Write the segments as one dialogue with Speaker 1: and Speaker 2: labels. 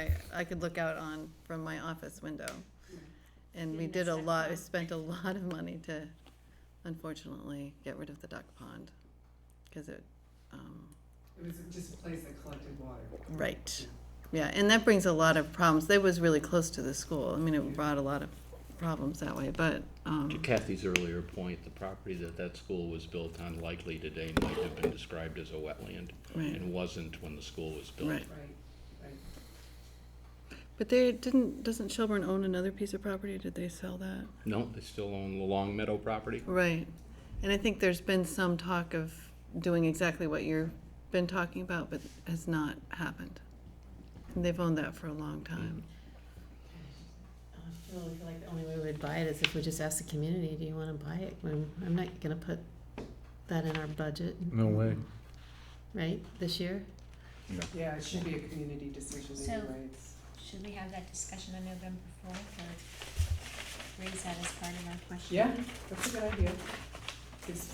Speaker 1: I, I could look out on from my office window. And we
Speaker 2: Didn't
Speaker 1: did a
Speaker 2: miss that
Speaker 1: lot, we
Speaker 2: pond.
Speaker 1: spent a lot of money to, unfortunately, get rid of the duck pond. Cause it, um,
Speaker 3: It was just a place that collected water.
Speaker 1: right, yeah, and that brings a lot of problems. That was really close to the school. I mean, it brought a lot of problems that way, but,
Speaker 4: To
Speaker 1: um,
Speaker 4: Kathy's earlier point, the property that that school was built on likely today might have been described as a wetland
Speaker 1: Right.
Speaker 4: and wasn't when the school was built.
Speaker 1: right.
Speaker 3: Right, right.
Speaker 1: But they didn't, doesn't Shelburne own another piece of property? Did they sell that?
Speaker 4: No, they still own the Long Meadow property.
Speaker 1: Right, and I think there's been some talk of doing exactly what you've been talking about, but has not happened. And they've owned that for a long time.
Speaker 2: I feel like the only way we'd buy it is if we just ask the community, do you wanna buy it? I'm, I'm not gonna put that in our budget,
Speaker 5: No way.
Speaker 2: right, this year?
Speaker 3: Yeah, it should be a community decision
Speaker 6: So-
Speaker 3: anyway. It's-
Speaker 6: Should we have that discussion on November fourth or raise that as part of our question?
Speaker 3: Yeah, that's a good idea. It's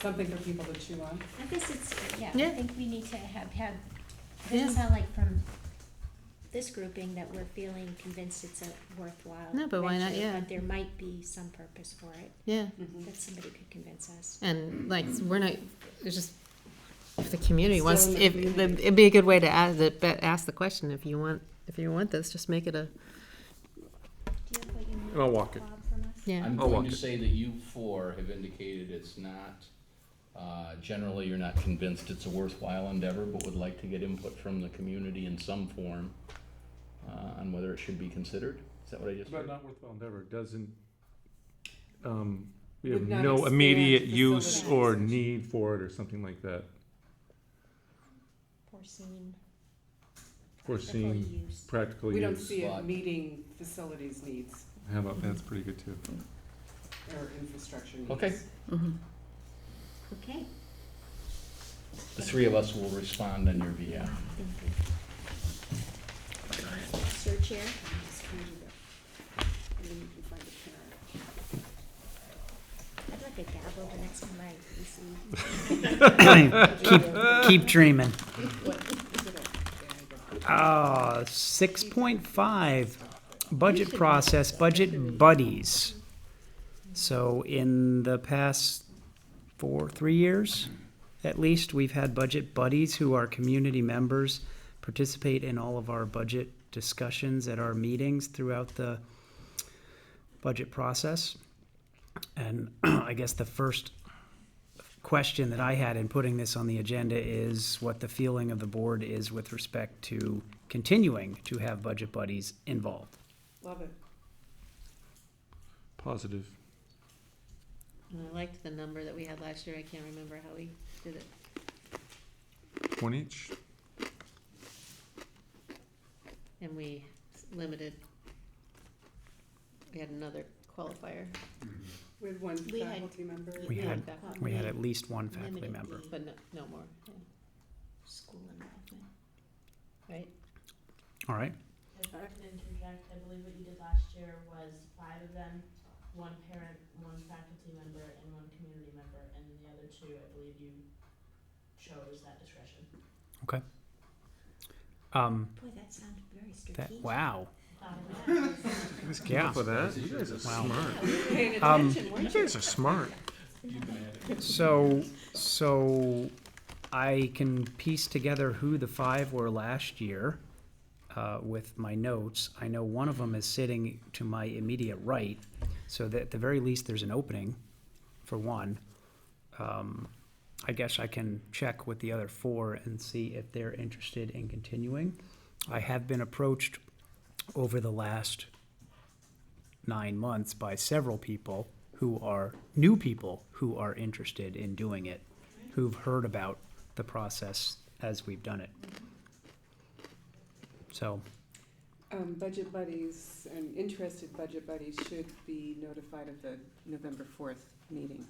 Speaker 3: something for people to chew on.
Speaker 6: I guess it's, yeah,
Speaker 1: Yeah.
Speaker 6: I think we need to have, have, doesn't
Speaker 2: Yeah.
Speaker 6: sound like from this grouping that we're feeling convinced it's a worthwhile
Speaker 2: No, but why not?
Speaker 6: venture,
Speaker 2: Yeah.
Speaker 6: But there might be some purpose for it,
Speaker 2: Yeah,
Speaker 6: that somebody could convince us.
Speaker 2: and like, we're not, it's just, if the community wants,
Speaker 3: Still in the
Speaker 2: if, the-
Speaker 3: community.
Speaker 2: it'd be a good way to ask, the- but ask the question, if you want, if you want this, just make it a,
Speaker 6: Do you have what you need?
Speaker 5: I'll walk it.
Speaker 6: Bob, from us?
Speaker 2: yeah.
Speaker 4: I'm
Speaker 5: I'll
Speaker 4: going
Speaker 5: walk
Speaker 4: to
Speaker 5: it.
Speaker 4: say that you four have indicated it's not, uh, generally, you're not convinced it's a worthwhile endeavor, but would like to get input from the community in some form uh, on whether it should be considered. Is that what I just
Speaker 5: But
Speaker 4: heard?
Speaker 5: not worthwhile endeavor, doesn't, um, we have
Speaker 3: Would not
Speaker 5: no
Speaker 3: expand
Speaker 5: immediate
Speaker 3: facility
Speaker 5: use or
Speaker 3: acquisition.
Speaker 5: need for it or something like that.
Speaker 6: Foreseen.
Speaker 5: Foreseen.
Speaker 6: practical use.
Speaker 5: Practical
Speaker 3: We don't
Speaker 5: use,
Speaker 3: see it
Speaker 4: Slot.
Speaker 3: meeting facilities needs
Speaker 5: how about, that's pretty good too.
Speaker 3: or infrastructure needs.
Speaker 4: Okay.
Speaker 1: Mhm.
Speaker 6: Okay,
Speaker 4: The three of us will respond on your behalf.
Speaker 6: thank you. Sir Chair?
Speaker 3: Just kind of do that. And then you can find a parent.
Speaker 6: I'd like a gavel the next E time I receive
Speaker 7: Keep dreaming. Ah, six point five, budget process, budget buddies. So in the past four, three years, at least, we've had budget buddies who are community members, participate in all of our budget discussions at our meetings throughout the budget process. And I guess the first question that I had in putting this on the agenda is what the feeling of the board is with respect to continuing to have budget buddies involved.
Speaker 3: Love it.
Speaker 5: Positive.
Speaker 2: And I liked the number that we had last year, I can't remember how we did it.
Speaker 5: One each?
Speaker 2: And we limited, we had another qualifier,
Speaker 3: We had one
Speaker 6: We had-
Speaker 3: faculty member.
Speaker 6: We
Speaker 2: we
Speaker 6: Yeah,
Speaker 2: had,
Speaker 6: that
Speaker 2: we had at least one
Speaker 6: limited
Speaker 2: faculty member.
Speaker 6: the
Speaker 2: But no, no more, yeah.
Speaker 6: School involvement.
Speaker 2: right?
Speaker 7: All right,
Speaker 8: If I can interject, I believe what you did last year was five of them, one parent, one faculty member, and one community member, and the other two, I believe you chose that discretion.
Speaker 7: okay. Um,
Speaker 6: Boy, that sounded very
Speaker 7: that,
Speaker 6: strategic.
Speaker 7: wow,
Speaker 8: Um, that was-
Speaker 7: yeah.
Speaker 5: For that, you guys are
Speaker 7: Wow.
Speaker 5: smart.
Speaker 7: Um,
Speaker 5: You guys are smart.
Speaker 7: So, so I can piece together who the five were last year uh, with my notes. I know one of them is sitting to my immediate right, so that at the very least, there's an opening for one. Um, I guess I can check with the other four and see if they're interested in continuing. I have been approached over the last nine months by several people who are new people who are interested in doing it, who've heard about the process as we've done it. So,
Speaker 3: Um, budget buddies and interested budget buddies should be notified of the November fourth meeting.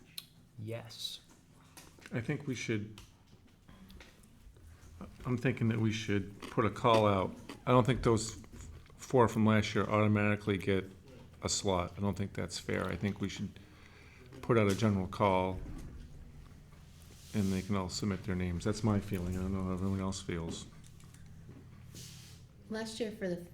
Speaker 7: yes.
Speaker 5: I think we should, I'm thinking that we should put a call out. I don't think those four from last year automatically get a slot. I don't think that's fair. I think we should put out a general call and they can all submit their names. That's my feeling. I don't know how everyone else feels.
Speaker 2: Last year for the